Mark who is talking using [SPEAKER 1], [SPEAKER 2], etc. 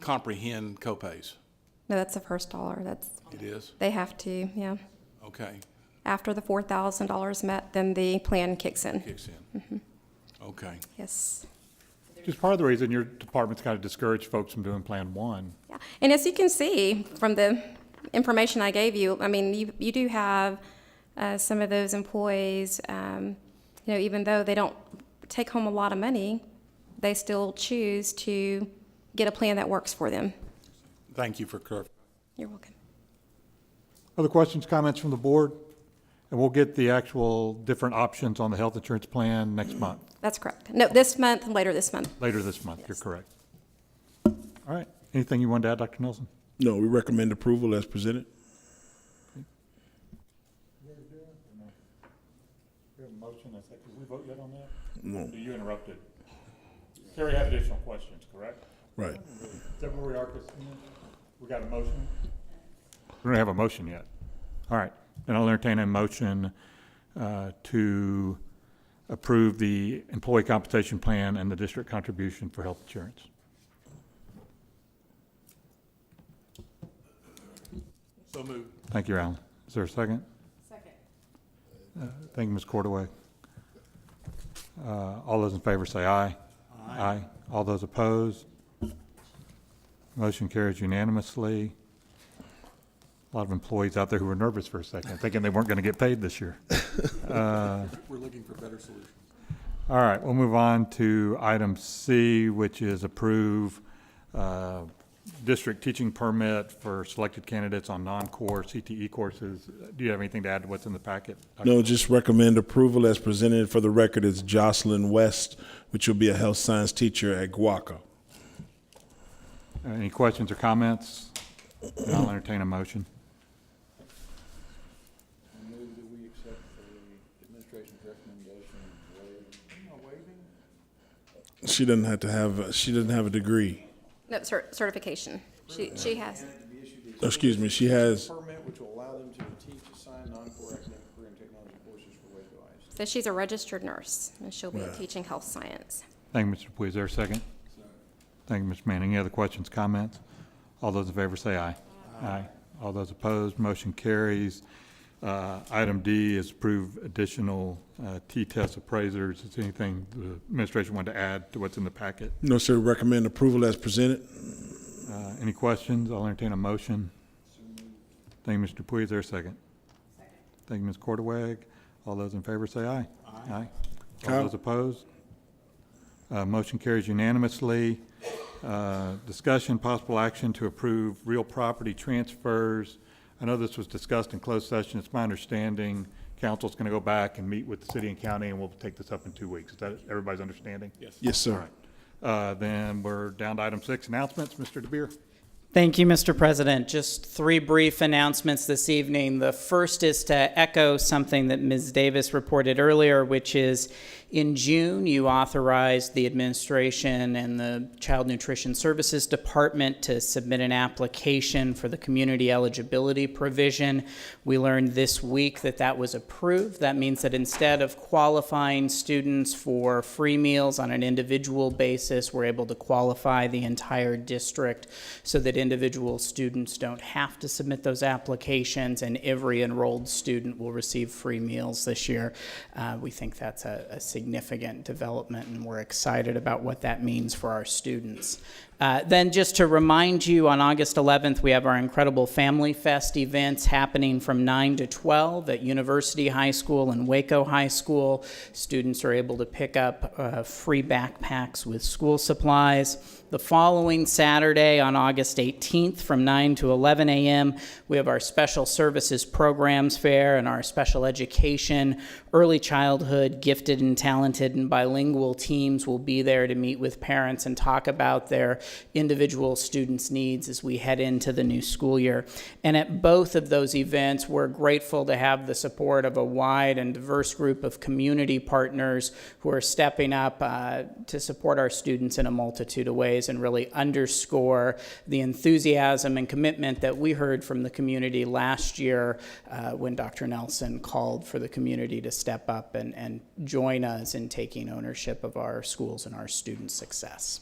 [SPEAKER 1] comprehend copays?
[SPEAKER 2] No, that's the first dollar. That's,
[SPEAKER 1] It is?
[SPEAKER 2] they have to, yeah.
[SPEAKER 1] Okay,
[SPEAKER 2] After the four thousand dollars met, then the plan kicks in.
[SPEAKER 1] kicks in. Okay.
[SPEAKER 2] Yes.
[SPEAKER 3] Just part of the reason your department's got to discourage folks from doing Plan One.
[SPEAKER 2] Yeah. And as you can see from the information I gave you, I mean, you, you do have uh, some of those employees, um, you know, even though they don't take home a lot of money, they still choose to get a plan that works for them.
[SPEAKER 1] Thank you for clarifying.
[SPEAKER 2] You're welcome.
[SPEAKER 3] Other questions, comments from the board? And we'll get the actual different options on the health insurance plan next month,
[SPEAKER 2] That's correct. No, this month, later this month.
[SPEAKER 3] later this month, you're correct. All right, anything you wanted to add, Dr. Nelson?
[SPEAKER 4] No, we recommend approval as presented.
[SPEAKER 3] We have a motion, I think, did we vote yet on that?
[SPEAKER 4] No,
[SPEAKER 3] You interrupted. Carrie had additional questions, correct?
[SPEAKER 4] right.
[SPEAKER 3] Is that where we are, Christina? We got a motion? We don't have a motion yet. All right, then I'll entertain a motion uh, to approve the employee compensation plan and the district contribution for health insurance.
[SPEAKER 1] So moved.
[SPEAKER 3] Thank you, Alan. Is there a second? Second. Thank you, Ms. Cordaway. Uh, All those in favor say aye. Aye. All those opposed? Motion carries unanimously. A lot of employees out there who were nervous for a second, thinking they weren't going to get paid this year.
[SPEAKER 1] We're looking for better solutions.
[SPEAKER 3] All right, we'll move on to item C, which is approve uh, district teaching permit for selected candidates on non-core CTE courses. Do you have anything to add to what's in the packet?
[SPEAKER 4] No, just recommend approval as presented. For the record, it's Jocelyn West, which will be a health science teacher at Guaca.
[SPEAKER 3] Any questions or comments? Then I'll entertain a motion.
[SPEAKER 5] I move that we accept the administration's recommendation of waiving.
[SPEAKER 4] She doesn't have to have, she doesn't have a degree.
[SPEAKER 2] No, cert- certification. She, she has.
[SPEAKER 5] And to be issued a
[SPEAKER 4] Excuse me, she has,
[SPEAKER 5] permit which will allow them to teach, assign non-core academic career and technology courses for Waco ISD.
[SPEAKER 2] So she's a registered nurse and she'll be teaching health science.
[SPEAKER 3] Thank you, Mr. Dupuy. Is there a second? Thank you, Mr. Manning. Any other questions, comments? All those in favor say aye. Aye. All those opposed, motion carries. Uh, Item D is approve additional uh, T-test appraisers. Is anything the administration wanted to add to what's in the packet?
[SPEAKER 4] no, sir, recommend approval as presented.
[SPEAKER 3] Uh, Any questions? I'll entertain a motion. Thank you, Mr. Dupuy. Is there a second? Thank you, Ms. Cordwag. All those in favor say aye. Aye. All
[SPEAKER 4] Kyle?
[SPEAKER 3] those opposed? Uh, Motion carries unanimously. Uh, Discussion, possible action to approve real property transfers. I know this was discussed in closed session. It's my understanding council's going to go back and meet with the city and county, and we'll take this up in two weeks. Is that everybody's understanding? Yes.
[SPEAKER 4] Yes, sir.
[SPEAKER 3] Uh, Then we're down to item six, announcements. Mr. DeBeer.
[SPEAKER 6] Thank you, Mr. President. Just three brief announcements this evening. The first is to echo something that Ms. Davis reported earlier, which is in June, you authorized the administration and the Child Nutrition Services Department to submit an application for the community eligibility provision. We learned this week that that was approved. That means that instead of qualifying students for free meals on an individual basis, we're able to qualify the entire district so that individual students don't have to submit those applications, and every enrolled student will receive free meals this year. Uh, we think that's a, a significant development, and we're excited about what that means for our students. Uh, then, just to remind you, on August 11th, we have our incredible Family Fest events happening from 9 to 12 at University High School and Waco High School. Students are able to pick up uh, free backpacks with school supplies. The following Saturday, on August 18th, from 9 to 11 a.m., we have our Special Services Programs Fair and our Special Education, Early Childhood, Gifted and Talented, and Bilingual teams will be there to meet with parents and talk about their individual students' needs as we head into the new school year. And at both of those events, we're grateful to have the support of a wide and diverse group of community partners who are stepping up uh, to support our students in a multitude of ways and really underscore the enthusiasm and commitment that we heard from the community last year uh, when Dr. Nelson called for the community to step up and, and join us in taking ownership of our schools and our students' success.